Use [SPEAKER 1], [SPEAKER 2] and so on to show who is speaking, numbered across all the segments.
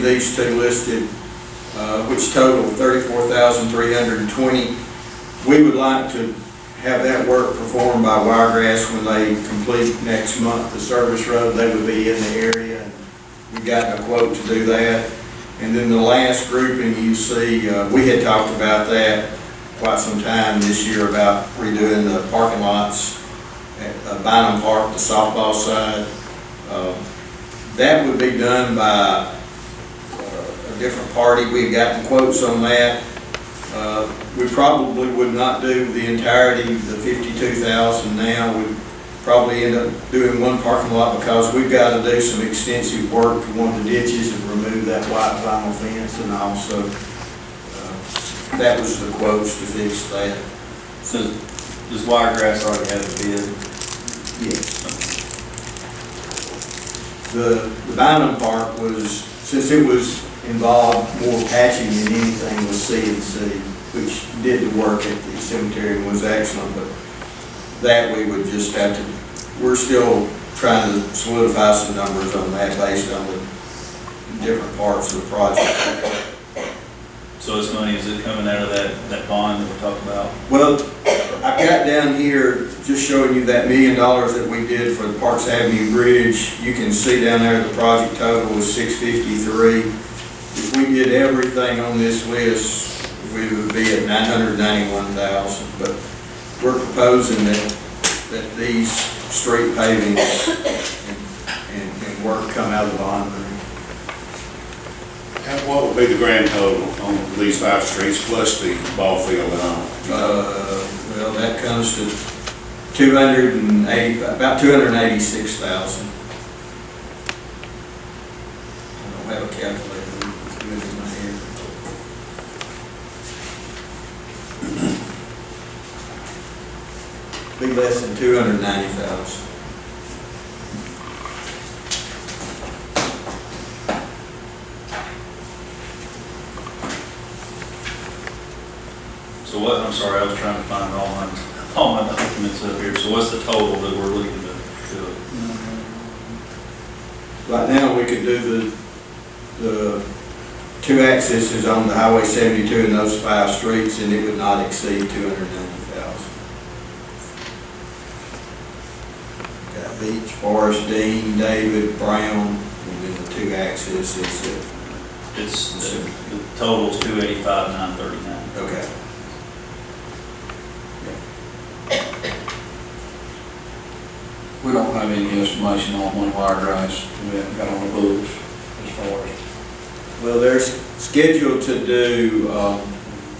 [SPEAKER 1] these two listed, uh, which total thirty-four thousand three hundred and twenty. We would like to have that work performed by Wiregrass when they complete next month the service road. They would be in the area. We've gotten a quote to do that. And then the last grouping you see, uh, we had talked about that quite some time this year about redoing the parking lots at uh, Bynum Park, the softball side. Um, That would be done by uh, a different party. We had gotten quotes on that. Uh, We probably would not do the entirety of the fifty-two thousand now. We'd probably end up doing one parking lot because we've got to do some extensive work to one of the ditches and remove that white vinyl fence and also, uh, that was the quotes to fix that.
[SPEAKER 2] So does Wiregrass already have a bid?
[SPEAKER 1] Yes. The, the Bynum part was, since it was involved more patching than anything was C and C, which did the work at the cemetery and was excellent, but that we would just have to, we're still trying to solidify some numbers on that based on the different parts of the project.
[SPEAKER 2] So this money, is it coming out of that, that bond that we talked about?
[SPEAKER 1] Well, I've got down here, just showing you that million dollars that we did for the Parks Avenue Bridge. You can see down there, the project total was six fifty-three. If we did everything on this list, we would be at nine hundred ninety-one thousand. But we're proposing that, that these street paving and, and- and work come out of the bond money.
[SPEAKER 3] And What would be the grand total on these five streets plus the ball field and all?
[SPEAKER 1] Uh, well, that comes to two hundred and eighty, about two hundred and eighty-six thousand. I don't have a calculator, it's good in my head. Be less than two hundred and ninety thousand.
[SPEAKER 2] So what, I'm sorry, I was trying to find all my, all my documents up here. So what's the total that we're looking to, to,
[SPEAKER 1] Right now, we could do the, the two accesses on the Highway seventy-two and those five streets, and it would not exceed two hundred and ninety thousand. Got Beach, Forest, Dean, David, Brown, and then the two accesses,
[SPEAKER 2] it's, the the total's two eighty-five, nine thirty-nine.
[SPEAKER 1] okay.
[SPEAKER 4] We don't have any estimation on when wire drives, we haven't got on the books as far as.
[SPEAKER 1] Well, they're s- scheduled to do um,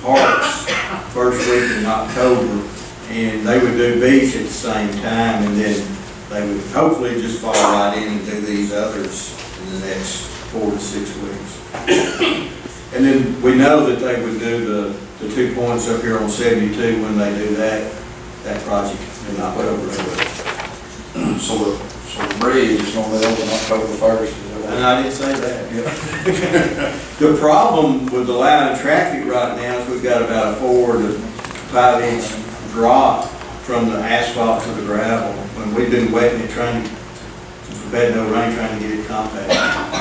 [SPEAKER 1] parks first week in October, and they would do beach at the same time, and then they would hopefully just fall right in and do these others in the next four to six weeks. And then we know that they would do the, the two points up here on seventy-two, when they do that, that project in October.
[SPEAKER 4] So the, so the bridge is gonna be open October first. is that
[SPEAKER 1] And
[SPEAKER 4] right?
[SPEAKER 1] I didn't say that. The problem with the line of traffic right now is we've got about a four to five inch drop from the asphalt to the gravel. When we've been wetting it, trying, to since we've had no rain, trying to get it compacted.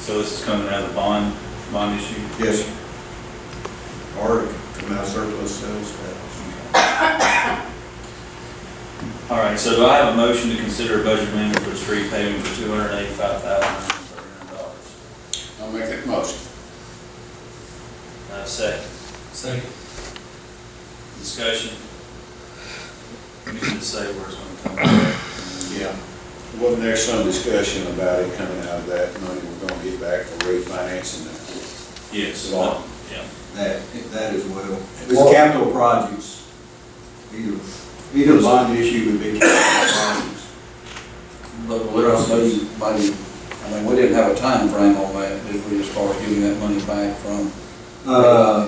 [SPEAKER 2] So this is coming out of the bond, bond issue?
[SPEAKER 1] Yes. sir. Or come out of surplus sales tax.
[SPEAKER 2] All right, so do I have a motion to consider a budget amendment for the street paving for two hundred and eighty-five thousand, nine hundred and thirty-nine dollars?
[SPEAKER 3] I'll make that motion.
[SPEAKER 2] Uh, second. Second. Discussion. You didn't say where it's gonna come from.
[SPEAKER 3] Yeah. Wasn't there some discussion about it coming out of that money we're gonna get back for refinancing that?
[SPEAKER 2] Yes.
[SPEAKER 3] Law.
[SPEAKER 2] Yeah.
[SPEAKER 1] That, that as well. It's capital projects. Either, either bond issue would be capital projects.
[SPEAKER 4] But we're also, buddy, I mean, we didn't have a time frame on that, did we, as far as giving that money back from?
[SPEAKER 1] Uh,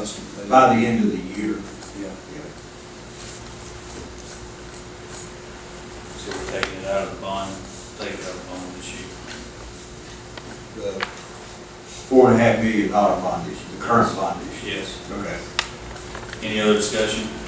[SPEAKER 1] by the end of the year.
[SPEAKER 4] Yeah.
[SPEAKER 2] So we're taking it out of the bond, taking it out of the bond this year.
[SPEAKER 1] the four and a half million dollar bond issue, the current bond issue.
[SPEAKER 2] Yes.
[SPEAKER 1] Okay.
[SPEAKER 2] Any other discussion?